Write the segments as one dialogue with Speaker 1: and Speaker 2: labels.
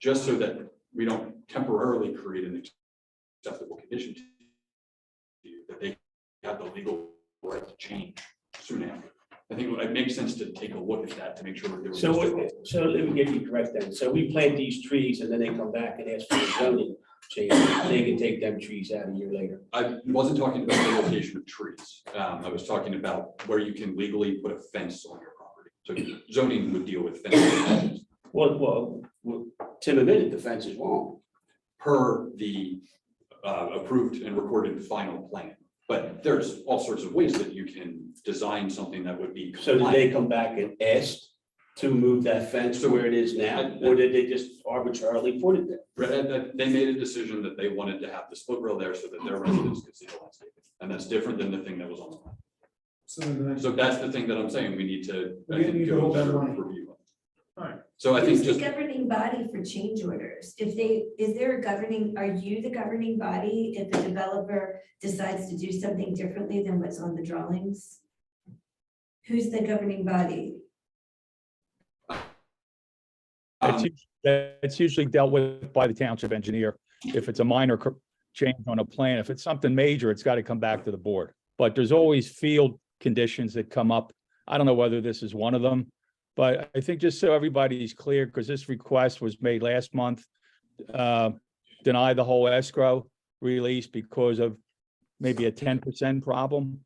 Speaker 1: just so that we don't temporarily create an acceptable condition to you, that they have the legal right to change soon after. I think it makes sense to take a look at that to make sure that there was.
Speaker 2: So, what- so let me get you correct then. So we plant these trees and then they come back and ask for a zoning change. They can take them trees out a year later.
Speaker 1: I wasn't talking about the location of trees. Um, I was talking about where you can legally put a fence on your property. So zoning would deal with fences
Speaker 2: Well, well, well, Tim admitted the fence is wrong.
Speaker 1: per the uh, approved and recorded final plan. But there's all sorts of ways that you can design something that would be.
Speaker 2: So did
Speaker 1: compliant.
Speaker 2: they come back and ask to move that fence to where it is now? Or did they just arbitrarily put it there?
Speaker 1: Right, and that- they made a decision that they wanted to have the split rail there so that their residents could see the landscape. And that's different than the thing that was on the plan.
Speaker 3: So then the next,
Speaker 1: So that's the thing that I'm saying, we need to, I
Speaker 3: We
Speaker 1: think,
Speaker 3: need to
Speaker 1: do a
Speaker 3: hold that
Speaker 1: better
Speaker 3: line.
Speaker 1: review.
Speaker 3: Alright.
Speaker 1: So I think
Speaker 4: Who's
Speaker 1: just,
Speaker 4: the governing body for change orders? If they, is there a governing, are you the governing body if the developer decides to do something differently than what's on the drawings? Who's the governing body?
Speaker 5: That's,
Speaker 1: um,
Speaker 5: us- that's usually dealt with by the township engineer. If it's a minor cor- change on a plan, if it's something major, it's got to come back to the board. But there's always field conditions that come up. I don't know whether this is one of them. But I think just so everybody's clear, because this request was made last month, uh, deny the whole escrow release because of maybe a ten percent problem.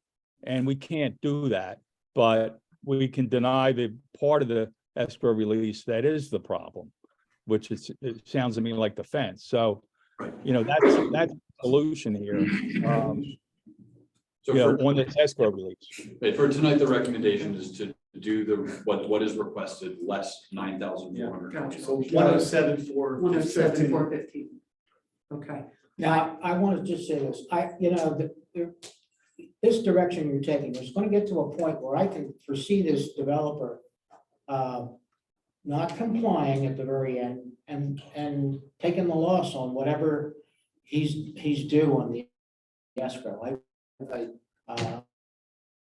Speaker 5: And we can't do that, but we can deny the part of the escrow release, that is the problem, which is, it sounds to me like the fence. So,
Speaker 1: Right.
Speaker 5: you know, that's, that's the solution here. um,
Speaker 1: so
Speaker 5: You know,
Speaker 1: for
Speaker 5: on this escrow release.
Speaker 1: But for tonight, the recommendation is to do the, what, what is requested, less nine thousand four hundred.
Speaker 3: one oh seven four.
Speaker 6: One oh seven, four fifteen. Okay,
Speaker 7: Now, I want to just say this, I, you know, the, the- this direction you're taking is going to get to a point where I can foresee this developer uh, not complying at the very end and, and taking the loss on whatever he's, he's due on the escrow. I, I, uh,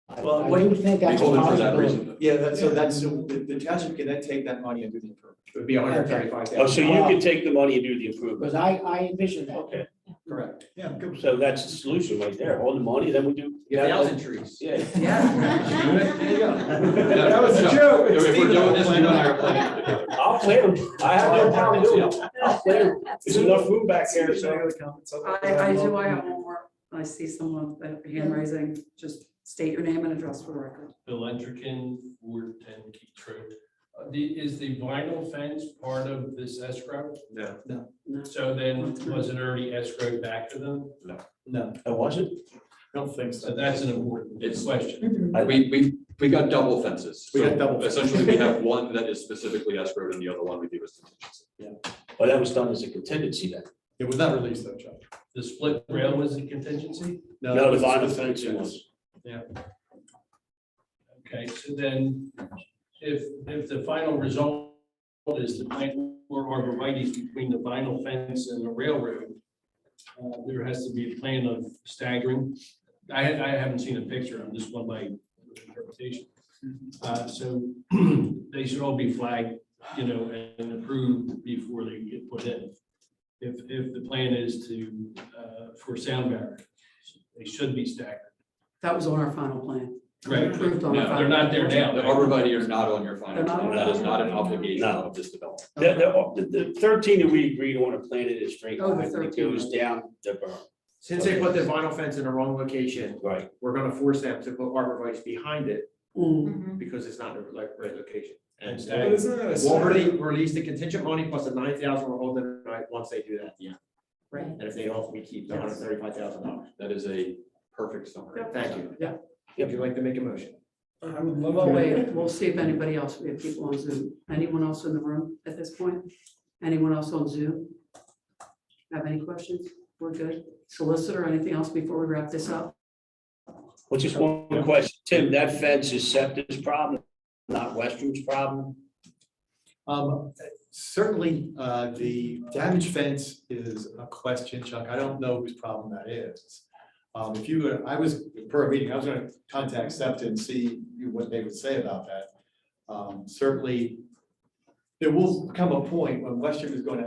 Speaker 7: I
Speaker 6: Well,
Speaker 7: I
Speaker 6: what-
Speaker 7: do think
Speaker 1: We
Speaker 7: that's a
Speaker 1: hold it for that
Speaker 7: possibility.
Speaker 1: reason.
Speaker 6: yeah, that's, so that's, so the the township can then take that money and do the improvement, it would be hundred and thirty-five
Speaker 2: Oh, so
Speaker 6: thousand.
Speaker 2: you can take the money and do the
Speaker 7: Because
Speaker 2: improvement.
Speaker 7: I, I envision that.
Speaker 2: Okay,
Speaker 6: Correct.
Speaker 3: Yeah, good.
Speaker 2: so that's the solution right there. All the money, then we do.
Speaker 6: trees.
Speaker 2: Yeah.
Speaker 6: Yeah. There you go.
Speaker 1: That was a
Speaker 6: joke.
Speaker 1: If we're doing this, you and I are planning it together.
Speaker 2: I'll plan. I have no problem doing it. I'll plan. There's enough room back here, so.
Speaker 6: I, I do, I have one more, I see someone with a hand raising, just state your name and address for the record.
Speaker 8: Bill Entricken, Ward ten Key Road. Uh, The, is the vinyl fence part of this escrow?
Speaker 1: No.
Speaker 6: No.
Speaker 8: So then, was it already escrowed back to them?
Speaker 6: No,
Speaker 2: I wasn't.
Speaker 6: don't think
Speaker 8: So that's an important
Speaker 1: It's-
Speaker 8: question.
Speaker 1: We, we, we got double fences.
Speaker 6: We got
Speaker 1: So
Speaker 6: double fences.
Speaker 1: Essentially, we have one that is specifically escrowed and the other one we do as contingency.
Speaker 2: Well, Oh, that was done as a contingency then.
Speaker 6: It was not released though, Chuck.
Speaker 8: The split rail was a contingency?
Speaker 2: No, the vinyl fencing was.
Speaker 8: Okay, so then, if, if the final result is the plant or arborvitae's between the vinyl fence and the railroad, uh, there has to be a plan of staggering. I, I haven't seen a picture, I'm just one by interpretation. Uh, so they should all be flagged, you know, and approved before they get put in. If, if the plan is to, uh, for sound barriers, they should be staggered.
Speaker 6: That was on our final plan.
Speaker 8: Right.
Speaker 6: Approved on our
Speaker 8: No,
Speaker 6: final.
Speaker 8: they're not there now.
Speaker 1: The arborvitae are not on your
Speaker 6: They're
Speaker 1: final
Speaker 6: not
Speaker 1: plan.
Speaker 6: on
Speaker 1: That is
Speaker 6: our-
Speaker 1: not an obligation
Speaker 2: No.
Speaker 1: of this development.
Speaker 2: The, oh, the, the thirteen that we agreed on and planted is straight
Speaker 6: Oh, the
Speaker 2: line, it
Speaker 6: 13.
Speaker 2: goes down the berm.
Speaker 9: Since they put the vinyl fence in the wrong location,
Speaker 2: Right.
Speaker 9: we're gonna force them to put arborvitae behind it
Speaker 6: Mm,
Speaker 9: because it's not in the right, right location. uh,
Speaker 8: And
Speaker 3: But
Speaker 8: staggered.
Speaker 3: isn't that a
Speaker 9: We'll
Speaker 3: separate,
Speaker 9: really release the contingent money plus the nine thousand we're holding tonight, once they do that. Yeah.
Speaker 6: Right.
Speaker 9: And if they don't, we keep the hundred thirty-five thousand dollars.
Speaker 1: That is a perfect summary.
Speaker 9: Thank you.
Speaker 6: Yeah.
Speaker 9: Would you like to make a motion?
Speaker 3: I would love
Speaker 6: Well,
Speaker 3: to,
Speaker 6: wait, we'll see if anybody else, we have people on Zoom. Anyone else in the room at this point? Anyone else on Zoom? Have any questions? We're good. Solicitor, anything else before we wrap this up?
Speaker 2: Well, just one question, Tim, that fence is Septa's problem, not Westrum's problem?
Speaker 10: Um, certainly, uh, the damage fence is a question, Chuck. I don't know whose problem that is. Um, if you, go- I was, per meeting, I was gonna contact SEPTA and see what they would say about that. Um, certainly, there will come a point when Western is gonna